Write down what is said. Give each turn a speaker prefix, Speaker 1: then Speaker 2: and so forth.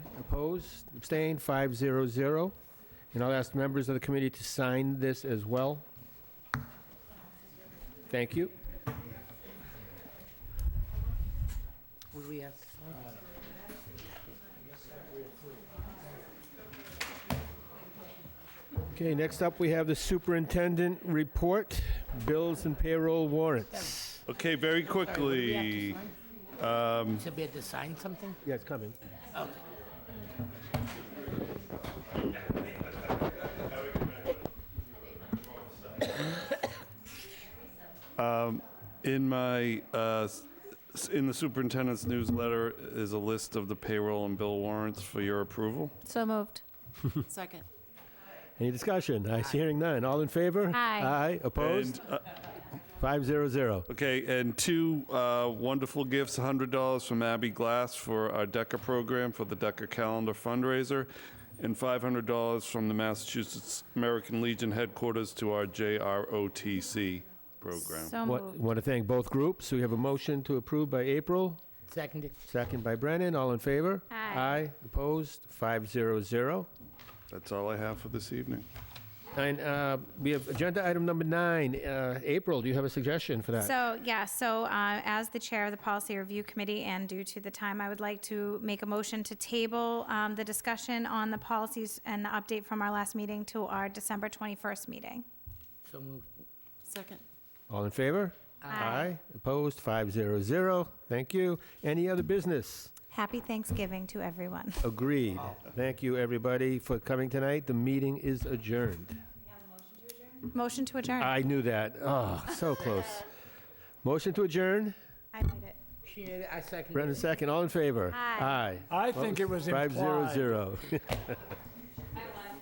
Speaker 1: Opposed, abstained, 500. And I'll ask members of the committee to sign this as well. Thank you.
Speaker 2: Would we have?
Speaker 1: Okay, next up, we have the superintendent report, bills and payroll warrants.
Speaker 3: Okay, very quickly,
Speaker 2: So we had to sign something?
Speaker 1: Yeah, it's coming.
Speaker 3: in my, uh, s- s- in the superintendent's newsletter is a list of the payroll and bill warrants for your approval.
Speaker 4: So moved.
Speaker 2: Second.
Speaker 1: Any discussion? I see hearing none. All in favor? Aye,
Speaker 4: Aye.
Speaker 1: opposed?
Speaker 3: And, uh,
Speaker 1: 500.
Speaker 3: Okay, and two uh, wonderful gifts, $100 from Abby Glass for our DECA program, for the DECA Calendar fundraiser, and $500 from the Massachusetts American Legion headquarters to our JROTC program.
Speaker 4: So moved.
Speaker 1: Want to thank both groups. We have a motion to approve by April,
Speaker 2: Seconded.
Speaker 1: second by Brennan. All in favor?
Speaker 4: Aye.
Speaker 1: opposed? 500.
Speaker 3: That's all I have for this evening.
Speaker 1: And uh, we have agenda item number nine. Uh, April, do you have a suggestion for that?
Speaker 4: So, yeah, so uh, as the chair of the Policy Review Committee and due to the time, I would like to make a motion to table um, the discussion on the policies and the update from our last meeting to our December 21st meeting.
Speaker 2: So moved. Second.
Speaker 1: All in favor? Aye. Opposed? 500. Thank you. Any other business?
Speaker 4: Happy Thanksgiving to everyone.
Speaker 1: Agreed. Thank you, everybody, for coming tonight. The meeting is adjourned.
Speaker 4: Motion to adjourn.
Speaker 1: I knew that. Oh, so close. Motion to adjourn.
Speaker 4: I made it.
Speaker 2: She made it, I seconded.
Speaker 1: Brendan,
Speaker 2: it.
Speaker 1: second. All in favor? Aye.
Speaker 4: Aye.
Speaker 5: I think it was implied.
Speaker 1: 500.